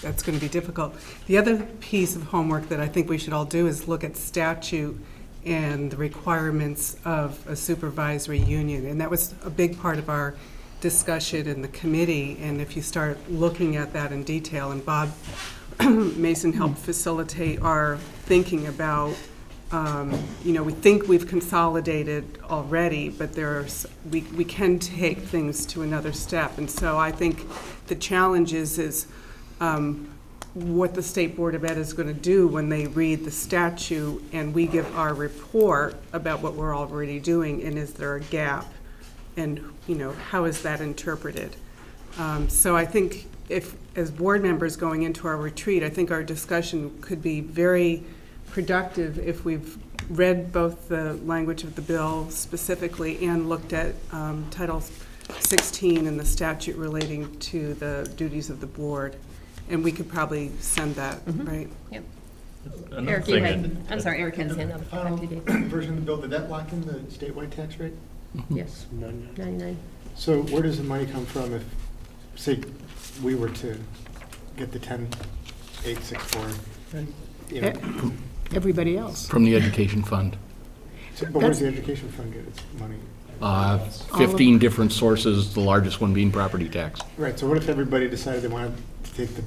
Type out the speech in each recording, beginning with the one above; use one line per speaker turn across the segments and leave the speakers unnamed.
that's going to be difficult. The other piece of homework that I think we should all do is look at statute and the requirements of a supervisory union. And that was a big part of our discussion in the committee. And if you start looking at that in detail, and Bob Mason helped facilitate our thinking about, um, you know, we think we've consolidated already, but there's, we, we can take things to another step. And so I think the challenge is, is um, what the State Board of Ed is going to do when they read the statute and we give our report about what we're already doing, and is there a gap? And, you know, how is that interpreted? Um, So I think if, as board members going into our retreat, I think our discussion could be very productive if we've read both the language of the bill specifically and looked at um, Title 16 and the statute relating to the duties of the board. And we could probably send that,
Mm-hmm.
right?
Another
Eric, you
thing
had,
that-
I'm sorry, Eric had his hand
The
up.
final
After you did.
Um, version of the bill, did that lock in the statewide tax rate?
Yes,
None.
99.
So where does the money come from if, say, we were to get the ten eight six four? You know,
everybody else.
From the education fund.
so- but where does the education fund get its money?
Uh, 15 different sources, the largest one being property tax.
Right, so what if everybody decided they wanted to take the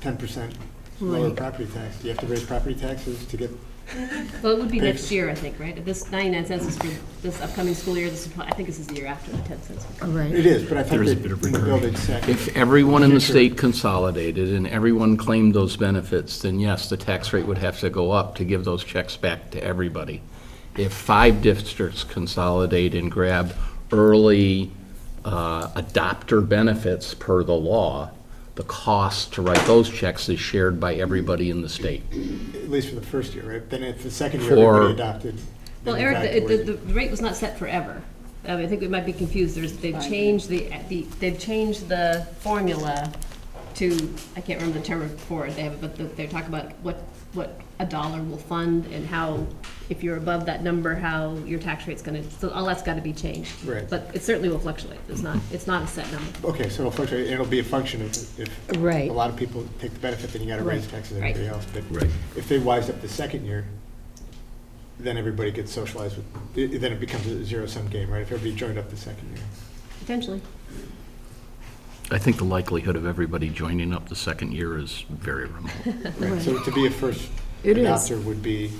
ten percent lower
Right.
property tax? Do you have to raise property taxes to get,
Well, it would be next year, I think, right? This 99 cents is for this upcoming school year, this is, prob- I think this is the year after the 10 cents.
All
it
right,
is, but I thought
There is a
that
bit of
in the bill
recurring.
they'd set.
If everyone in the
Future.
state consolidated and everyone claimed those benefits, then yes, the tax rate would have to go up to give those checks back to everybody. If five districts consolidate and grab early uh, adopter benefits per the law, the cost to write those checks is shared by everybody in the state.
At least for the first year, right? Then if the second year,
For-
everybody adopted. then
Well,
you're
Eric,
back to
the-
where
the,
you-
the rate was not set forever. I mean, I think we might be confused, there's, they've changed the, the, they've changed the formula to, I can't remember the term for it, they have, but the- they talk about what, what a dollar will fund and how, if you're above that number, how your tax rate's gonna, so all that's gotta be changed.
Right.
But it certainly will fluctuate, it's not, it's not a set number.
Okay, so it'll fluctuate, it'll be a function of if
Right.
a lot of people take the benefit, then you gotta raise
Right.
taxes and
Right.
everybody else. But
Right.
if they wise up the second year, then everybody gets socialized with, i- then it becomes a zero-sum game, right? If everybody joined up the second year.
Potentially.
I think the likelihood of everybody joining up the second year is very remote.
Right. So to be a first
It is.
adopter would be.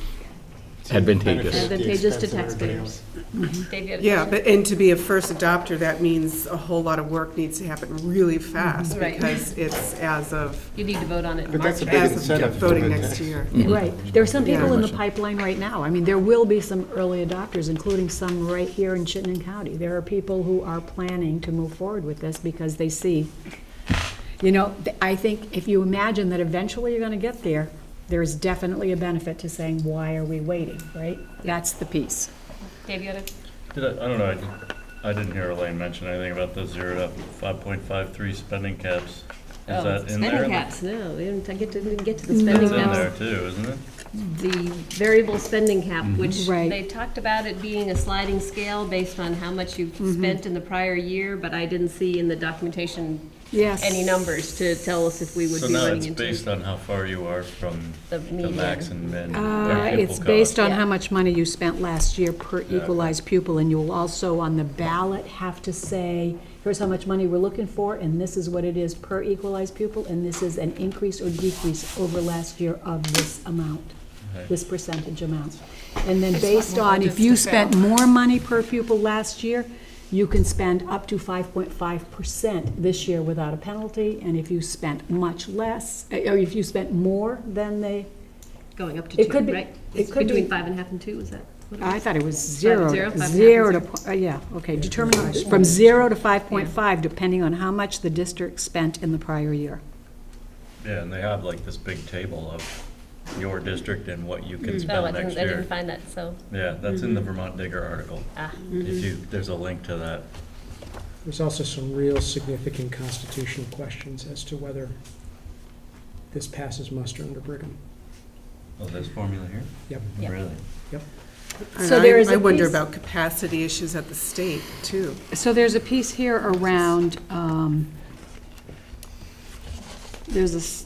to
Advantageous.
benefit at the
Advantageous to
expense of everybody else.
taxpayers. Dave, you had a
Yeah,
question?
but, and to be a first adopter, that means a whole lot of work needs to happen really fast
Right.
because it's as of,
You need to vote on it in
But
March.
that's a big
as
incentive.
of
to
voting
the
next
tax.
year.
right. There are some people in the
Yeah.
pipeline right now. I mean, there will be some early adopters, including some right here in Chittenden County. There are people who are planning to move forward with this because they see, you know, th- I think if you imagine that eventually you're going to get there, there is definitely a benefit to saying, why are we waiting, right? That's the piece.
Dave, you had a
Did I, I don't know, I, did- I didn't hear Elaine mention anything about the zero to five point five three spending caps. Is that in there?
Oh, Spending caps, no, we didn't I get to, didn't get to the
That's
spending
in there
caps.
too, isn't it?
The variable spending cap,
Mm-hmm.
which
Right.
they talked about it being a sliding scale based on how much you've
Mm-hmm.
spent in the prior year, but I didn't see in the documentation
Yes.
any numbers to tell us if we would
So
be
now
running
it's
into.
based on how far you are from
The
the
median.
max and min.
Uh,
per
It's
pupil
based
cost.
on
Yeah.
how much money you spent last year per
Exactly.
equalized pupil, and you'll also on the ballot have to say, here's how much money we're looking for, and this is what it is per equalized pupil, and this is an increase or decrease over last year of this amount,
Okay.
this percentage amount. And then
It's
based
not more
on, if
just
you
to
spent
fail.
more money per pupil last year, you can spend up to five point five percent this year without a penalty, and if you spent much less, uh, or if you spent more than the
Going up to
It could
two,
be-
right?
it
It's
could be-
Between five and a half and two, is that? what it
I
was?
thought it was zero,
zero, five and a half
zero to,
and
po- uh, yeah, okay, determine, from zero to five point five, depending on how much the district spent in the prior year.
Yeah, and they have like this big table of your district and what you can
Oh, I
spend next
didn't, I didn't
year.
find that, so,
Yeah, that's
Mm-hmm.
in the Vermont Digger article.
ah,
If you, there's a link to that.
There's also some real significant constitutional questions as to whether this passes muster under Brigham.
Oh, this formula here?
Yep.
Yeah.
Really?
And
So
I-
there is
I
a
wonder
piece-
about capacity issues at the state, too.
So there's a piece here around, um, there's a, s-